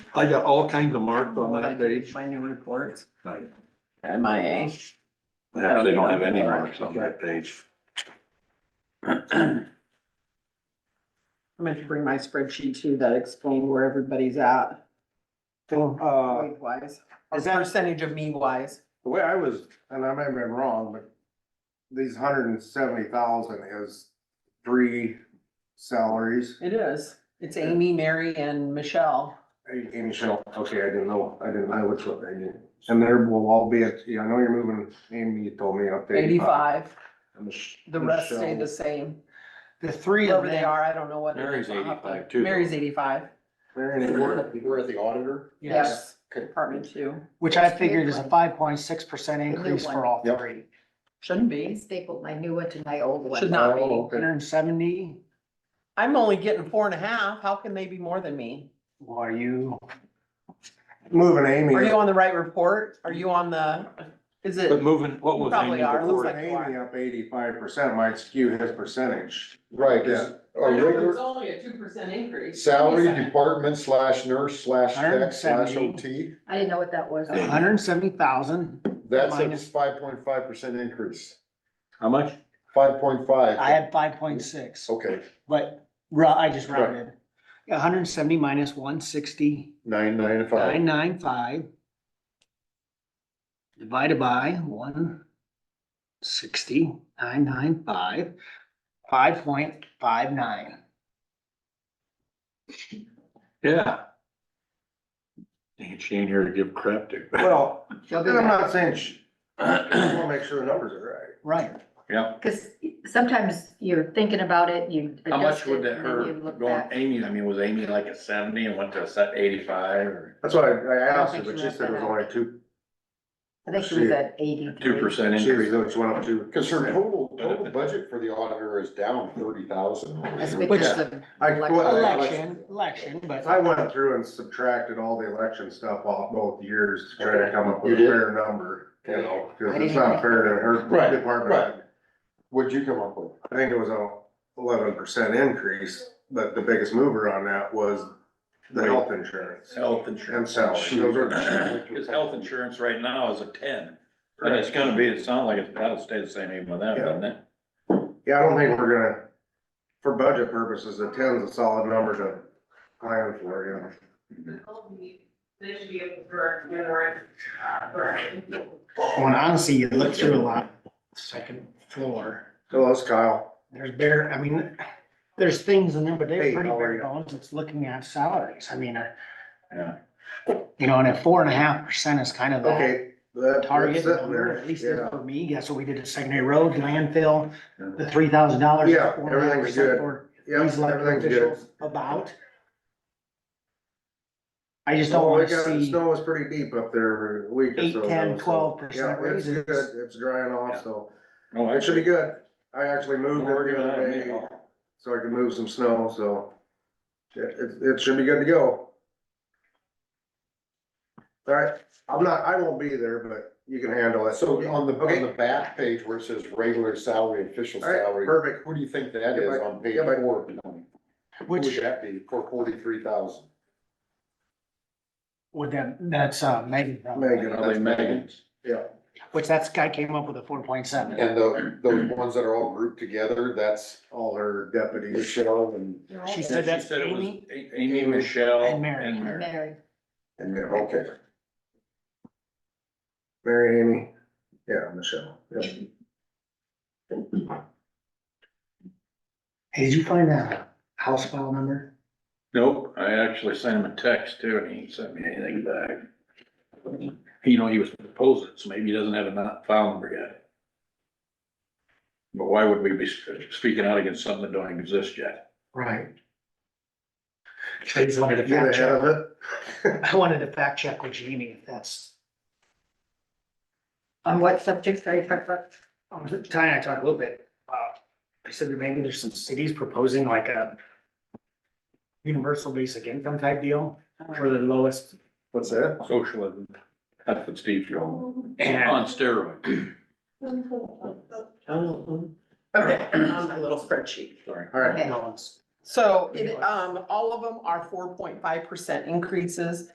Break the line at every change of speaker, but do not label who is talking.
I got all kinds of marks on that page.
My new reports.
Like,
MIA.
They don't have any marks on that page.
I meant to bring my spreadsheet too that explained where everybody's at,
Uh,
weight wise,
Is that-
percentage of me wise.
the way I was, and I may have been wrong, but these hundred and seventy thousand is three salaries.
It is. It's Amy, Mary and Michelle.
A- Amy Shell, okay, I didn't know, I didn't, I was, I didn't. And there will all be, at- yeah, I know you're moving, Amy, you told me up to eighty-five.
Eighty-five.
And Mich-
The rest stay the
Michelle-
same.
The three of
Whoever they
them,
are, I don't know what.
Mary's
I'll have to-
85 too, though.
Mary's eighty-five.
Mary, you were, you were at the auditor?
yes,
Yes, department two.
which I figured is a five point six percent
new
increase for
one.
all
Yep.
three.
Shouldn't
I
be.
stapled my new one to my old one.
Should not be.
Oh, okay.
Hundred and seventy,
I'm only getting four and a half. How can they be more than me?
well, are you,
Moving Amy.
Are you on the right report? Are you on the, is it?
But moving, what was
Probably
Amy
are. Looks
before?
Moving
like you are.
Amy up eighty-five percent might skew his percentage.
Right, yeah, a regular
only a two percent increase.
salary department slash nurse slash tech slash
170.
OT,
I didn't know what that was.
hundred and seventy thousand,
that's a
Minus-
five point five percent increase,
How much?
five point five.
I had five point six,
Okay,
but ru- I just rounded. hundred and seventy minus one sixty,
nine, nine,
nine
five,
nine five. Divided by one sixty, nine nine five, five point five nine.
Yeah. Dang it, she ain't here to give crap to.
Well,
She'll
and
do
I'm
that.
not saying, sh- I just wanna make sure the numbers are right.
Right,
Yeah.
Cause sometimes you're thinking about it, you.
How much
adjust it,
would that
and then you
hurt
look
going
back.
Amy, I mean, was Amy like a seventy and went to a set eighty-five or
That's why I I
don't
asked her,
think
but
she
she
left
said it
that
was
out.
only two,
I think she was at
two
eighty-three.
percent
she was,
increase?
she went up two.
cause her total, total budget for the auditor is down thirty thousand.
That's because of.
I- well,
election, election, but.
If I went through and subtracted all the election stuff off both years to try to come up
You
with a
did?
fair number, you know,
I
cause
didn't
it's not
know.
fair to
Right,
her department.
right. What'd you come up with?
I think it was a eleven percent increase, but the biggest mover on that was the health insurance
Health
and
insurance.
salary. Those are-
Cause health insurance right now is a ten, and it's gonna be, it sounds like it's, that'll stay the same even with that, doesn't it?
Yeah, I don't think we're gonna, for budget purposes, a ten's a solid number to plan for, you know.
They should be able to correct, you know, right, correct.
Well, and honestly, you look through a lot, second floor,
Hello, it's Kyle.
there's bare, I mean, there's things in there, but
Hey,
they're pretty
how are
bare
you?
bones, it's looking at salaries, I mean, I-
Yeah.
you know, and at four and a half percent is kind of the
Okay. that-
target
that's it
number,
there.
at least
Yeah.
for me, that's what we did at secondary road, landfill, the three thousand dollars.
Yeah, everything's good.
These
Yep,
elected
everything's good.
officials about. I just don't
Snow,
wanna
we Oh, got-
see,
Snow was pretty deep up there a week or so.
Eight,
ago,
10,
so-
12%
Yeah, it's
raises.
good. It's drying off, so
No,
it should
actually,
be good. I actually moved
we're
it the
giving that
other
a
day,
minute.
so I could move some snow, so it, it, it should be good to go. All right, I'm not, I won't be there, but you can handle it.
Uh, So on the, on the
Okay,
back page where it says regular salary, official
all right,
salary,
perfect.
who do you think that is on page
Yeah, but-
four? Who would
which,
that be for forty-three thousand?
would that, that's, uh, Megan, probably.
Megan,
Probably Megan's.
yeah.
which that's guy came up with a four point seven.
And the, those ones that are all grouped together, that's
All her deputies.
Michelle and,
She
She
said that's
said it was
Amy,
A- Amy, Michelle.
And Mary.
Mary.
and, okay.
Mary Amy, yeah, Michelle. yeah.
Hey, did you find that house file number?
Nope, I actually sent him a text too, and he ain't sent me anything back. You know, he was proposing, so maybe he doesn't have a not- file number yet. But why would we be sp- speaking out against something that don't exist yet?
Right. I just wanted to
Get
fact
ahead
check,
of it.
I wanted to fact check with Jamie if that's,
On what subjects are you talking about?
um, Ty and I talked a little bit, uh, I said that maybe there's some cities proposing like a universal basic income type deal
Uh-huh.
for the lowest,
What's that?
Socialism, that's what Steve's going, on
and
steroids,
Okay, on my little spreadsheet.
sorry.
All right.
Okay.
no one's
So it, um, all of them are four point five percent increases.